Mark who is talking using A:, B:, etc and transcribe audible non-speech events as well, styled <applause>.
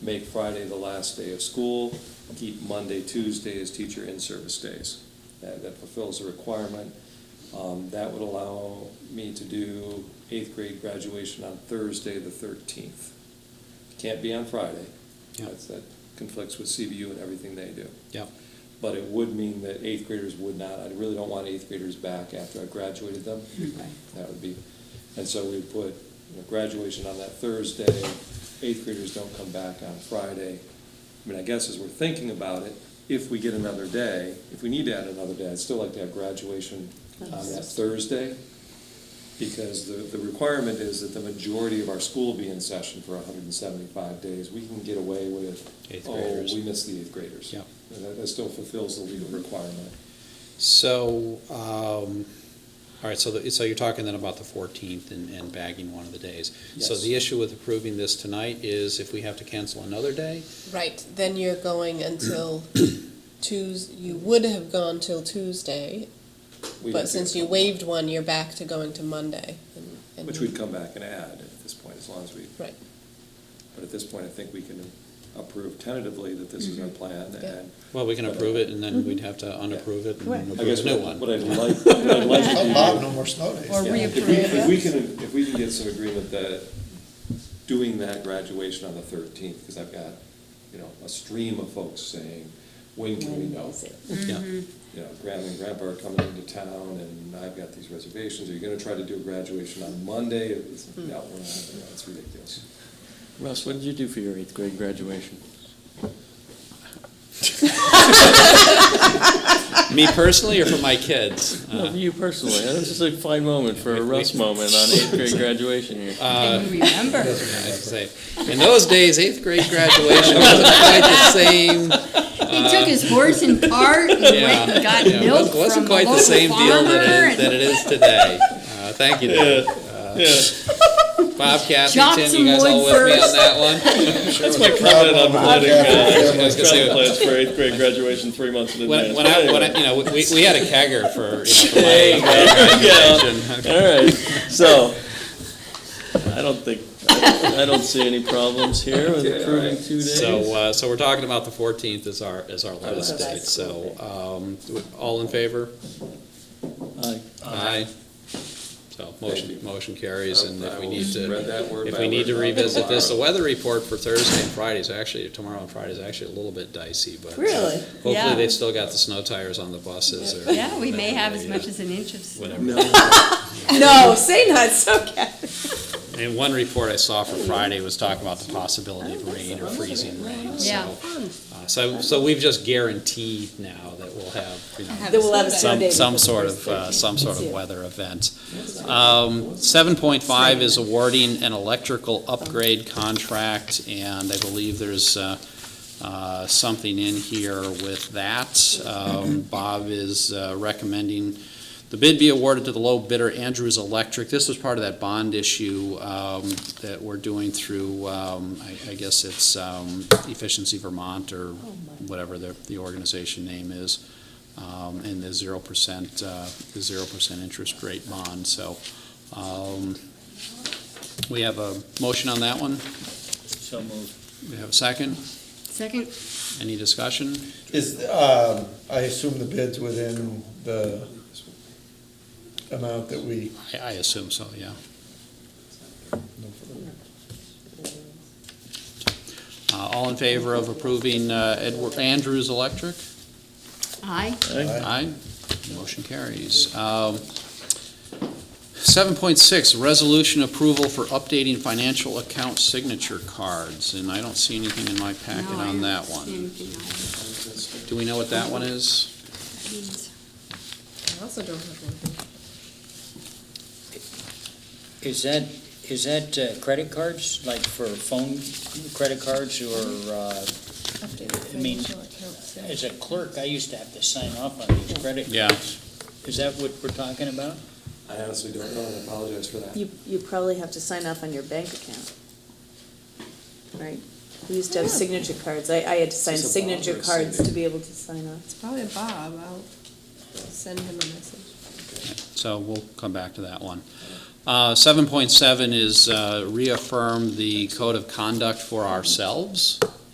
A: make Friday the last day of school, keep Monday, Tuesday as teacher in-service days. That, that fulfills the requirement. Um, that would allow me to do eighth grade graduation on Thursday, the thirteenth. Can't be on Friday.
B: Yeah.
A: That's, that conflicts with CBU and everything they do.
B: Yep,
A: But it would mean that eighth graders would not, I really don't want eighth graders back after I graduated them. That would be, and so we put you know, graduation on that Thursday, eighth graders don't come back on Friday. I mean, I guess as we're thinking about it, if we get another day, if we need to add another day, I'd still like to have graduation on that Thursday. Because the, the requirement is that the majority of our school be in session for hundred and seventy-five days. We can get away with,
B: Eighth
A: oh,
B: graders.
A: we missed the eighth graders.
B: Yep.
A: And That, that still fulfills the legal requirement.
B: so, um, all right, so, the- so you're talking then about the fourteenth and, and bagging one of the days. So
A: Yes.
B: the issue with approving this tonight is if we have to cancel another day,
C: Right, then you're going until Tues, you would have gone till Tuesday,
A: We
C: but
A: didn't
C: since
A: do it.
C: you waived one, you're back to going to Monday. and- and-
A: Which we'd come back and add at this point, as long as we
C: Right,
A: But at this point, I think we can approve tentatively that this is
C: Mm-hmm.
A: our plan,
C: Yeah.
A: and.
B: well, we can approve it and then we'd have to unapprove it
D: Correct.
B: and
A: Mm-hmm. I guess
B: approve a new
A: what what
B: one.
A: I'd like, what I'd
C: <laughs>
A: like to do.
E: Allow no more snow days.
D: Or
A: Yeah, if we-
D: reapprove
A: If we
D: it.
A: can, if we can get some agreement that doing that graduation on the thirteenth, because I've got, you know, a stream of folks saying, when can we know?
B: Yeah,
A: You know, grandma and grandpa are coming into town, and I've got these reservations, are you gonna try to do a graduation on Monday? It's, no, we're not, no, it's ridiculous.
F: Russ, what did you do for your eighth grade graduation?
B: me personally or for my kids?
F: No, for you personally. That was just a fine moment for a Russ moment on eighth grade graduation here.
B: Uh,
D: Can you remember?
B: I have to say, in those days, eighth grade graduation wasn't quite the same.
D: He took his horse
B: <laughs>
D: and cart and went and got
B: uh, Yeah,
D: milk
B: it wasn't
D: from
B: quite
D: the
B: the
D: local
B: same deal
D: farmer
B: that it,
D: and-
B: that it is today. Uh, thank you, Dave. Uh, Bob, Kathy,
D: Chopped
B: Tim,
D: some
B: you guys all
D: wood
B: with me on
D: first.
B: that one?
E: That's my
G: comment on planning, uh,
B: I was gonna
G: travel
B: say,
G: plans for eighth grade graduation three months in
B: when,
G: advance.
B: when I, when I, you know, we, we had a kegger for, you know,
F: <laughs>
B: for my graduation.
F: All right, so, I don't think, I don't see any problems here with
A: Okay, all
F: approving
A: right.
F: two days.
B: So, uh, so we're talking about the fourteenth is our, is our last
D: Oh,
A: last
B: date, so, um, all in favor? uh,
F: Aye.
B: Aye. So
A: Thank
B: motion,
A: you.
B: motion carries, and if we need to,
A: Read that word
B: if
A: by
B: we
A: word
B: need to
A: now.
B: revisit this, the weather report for Thursday and Friday is actually, tomorrow and Friday is actually a little bit dicey, but.
D: Really?
B: Hopefully
D: Yeah.
B: they've still got the snow tires on the buses or.
D: <laughs> Yeah, we may have as much as an inch of snow.
B: Whatever.
C: <laughs> no, say not, so okay.
B: And one report I saw for Friday was talking about the possibility of rain or freezing rain,
D: Yeah.
B: so. uh, So, so we've just guaranteed now that we'll have, you know,
D: Have a snow
B: some, some sort of, uh, some sort of weather event. Um, seven point five is awarding an electrical upgrade contract, and I believe there's, uh, uh, something in here with that. Um, Bob is uh, recommending the bid be awarded to the low bidder, Andrews Electric. This was part of that bond issue, um, that we're doing through, um, I, I guess it's, um, Efficiency Vermont
D: Oh,
B: or whatever the, the organization name is um, and the zero percent, uh, the zero percent interest rate bond, so, um, we have a motion on that one,
F: So moved.
B: we have a second,
D: Second,
B: any discussion?
E: Is, um, I assume the bid's within the amount that we,
B: I, I assume so, yeah. Uh, all in favor of approving, uh, Edward Andrews Electric?
D: aye.
B: Aye. Motion carries. Um, 7.6, resolution approval for updating financial account signature cards, and I don't see anything in my packet
D: No, I
B: on
D: don't
B: that
D: see
B: one.
D: anything else.
B: Do we know what that one is?
D: That means-
C: I also don't have one.
H: Is that, is that uh, credit cards, like for phone credit cards or, uh,
C: Updated
H: I mean,
C: financial accounts, yeah.
H: as a clerk, I used to have to sign off on these credit
B: Yeah.
H: cards. Is that what we're talking about?
A: I honestly don't know, and I apologize for that.
I: You, you probably have to sign off on your bank account. Right? We used to have signature cards. I, I had to sign
A: Is this a bond or
I: signature
A: a
I: cards
A: CD?
I: to be able to sign off.
C: It's probably Bob, I'll send him a message.
B: So we'll come back to that one. Uh, 7.7 is uh, reaffirm the code of conduct for ourselves.